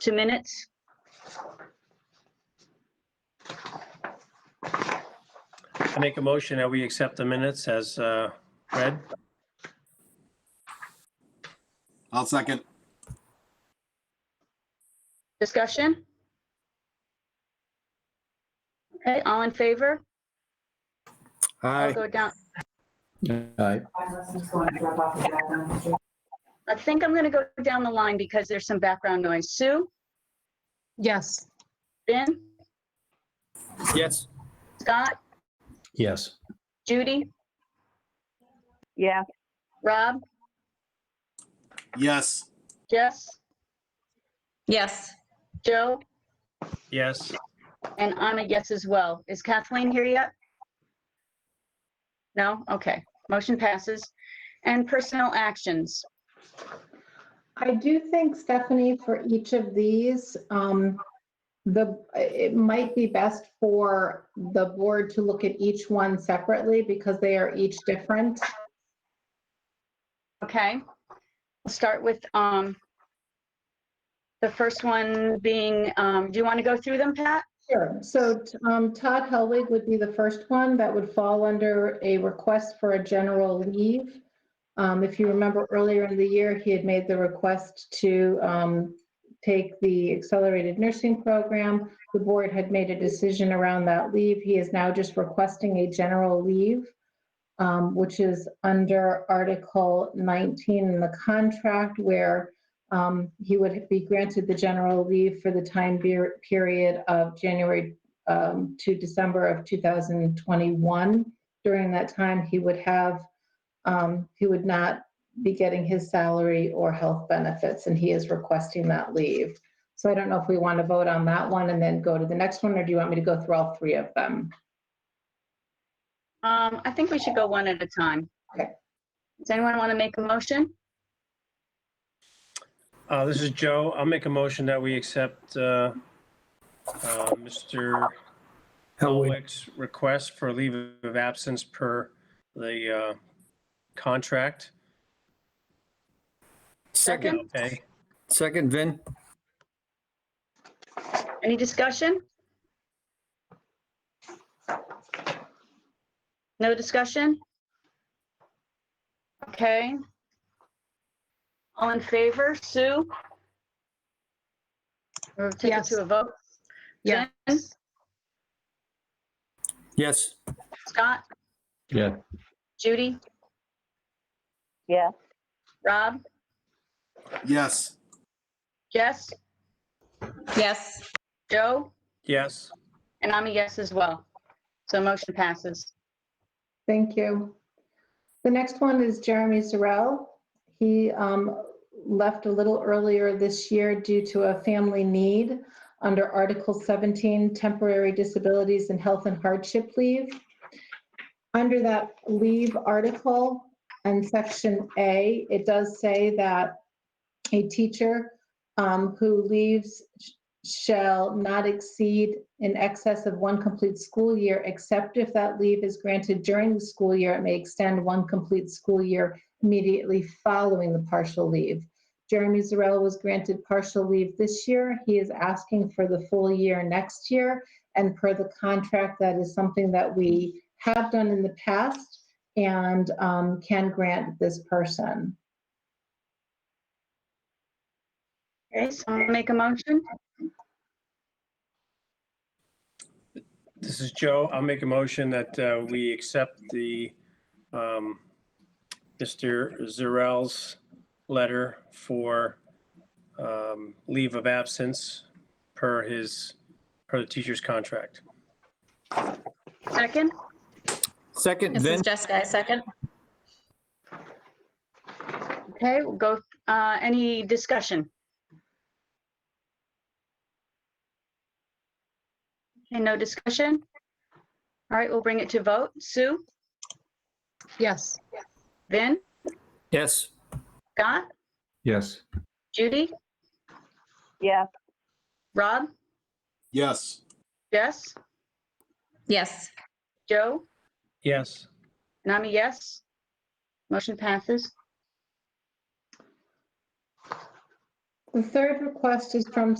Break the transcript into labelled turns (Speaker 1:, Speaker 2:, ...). Speaker 1: two minutes.
Speaker 2: I make a motion that we accept the minutes as uh, read.
Speaker 3: I'll second.
Speaker 1: Discussion? Okay, all in favor? I'll
Speaker 4: Aye.
Speaker 1: go down.
Speaker 5: Aye.
Speaker 1: I think I'm going to go down the line because there's some background noise. Sue,
Speaker 6: Yes.
Speaker 1: Ben,
Speaker 2: Yes.
Speaker 1: Scott,
Speaker 5: Yes.
Speaker 1: Judy,
Speaker 7: yes.
Speaker 1: Rob,
Speaker 3: Yes.
Speaker 1: Jess,
Speaker 8: yes.
Speaker 1: Joe,
Speaker 2: Yes.
Speaker 1: and I'm a yes as well. Is Kathleen here yet? No? Okay. Motion passes. And personal actions.
Speaker 6: I do think, Stephanie, for each of these, um, the, it might be best for the board to look at each one separately because they are each different.
Speaker 1: Okay. We'll start with um the first one being, um, do you want to go through them, Pat?
Speaker 6: Sure. So um, Todd Helwig would be the first one that would fall under a request for a general leave. Um, If you remember earlier in the year, he had made the request to um, take the accelerated nursing program. The board had made a decision around that leave. He is now just requesting a general leave, um, which is under Article 19 in the contract where um, he would be granted the general leave for the time be- period of January um, to December of 2021. During that time, he would have, um, he would not be getting his salary or health benefits, and he is requesting that leave. So I don't know if we want to vote on that one and then go to the next one, or do you want me to go through all three of them?
Speaker 1: Um, I think we should go one at a time.
Speaker 6: Okay.
Speaker 1: Does anyone want to make a motion?
Speaker 2: Uh, This is Joe. I'll make a motion that we accept uh, uh, Mr.
Speaker 4: Helwig.
Speaker 2: Helwig's request for leave of absence per the uh, contract.
Speaker 4: Second,
Speaker 2: Okay.
Speaker 4: second, Vin.
Speaker 1: Any discussion? No discussion? Okay. All in favor, Sue? Or take it
Speaker 6: Yes.
Speaker 1: to a vote?
Speaker 6: Yes.
Speaker 1: Jen?
Speaker 4: Yes.
Speaker 1: Scott?
Speaker 5: Yeah.
Speaker 1: Judy?
Speaker 7: Yes.
Speaker 1: Rob?
Speaker 3: Yes.
Speaker 1: Jess?
Speaker 8: Yes.
Speaker 1: Joe?
Speaker 2: Yes.
Speaker 1: And I'm a yes as well. So motion passes.
Speaker 6: Thank you. The next one is Jeremy Sorrell. He um, left a little earlier this year due to a family need under Article 17, Temporary Disabilities and Health and Hardship Leave. Under that leave article and Section A, it does say that a teacher um, who leaves sh- shall not exceed in excess of one complete school year, except if that leave is granted during the school year, it may extend one complete school year immediately following the partial leave. Jeremy Zarella was granted partial leave this year. He is asking for the full year next year. And per the contract, that is something that we have done in the past and um, can grant this person.
Speaker 1: Okay, someone make a motion?
Speaker 2: This is Joe. I'll make a motion that uh, we accept the um, Mr. Zarell's letter for um, leave of absence per his, per the teacher's contract.
Speaker 1: Second?
Speaker 4: Second,
Speaker 8: This is
Speaker 4: Vin.
Speaker 8: Jessica, I second.
Speaker 1: Okay, we'll go, uh, any discussion? Okay, no discussion? All right, we'll bring it to vote. Sue,
Speaker 6: Yes.
Speaker 1: Vin,
Speaker 4: Yes.
Speaker 1: Scott,
Speaker 5: Yes.
Speaker 1: Judy,
Speaker 7: yes.
Speaker 1: Rob,
Speaker 3: Yes.
Speaker 1: Jess,
Speaker 8: Yes.
Speaker 1: Joe,
Speaker 2: Yes.
Speaker 1: and I'm a yes. Motion passes.
Speaker 6: The third request is from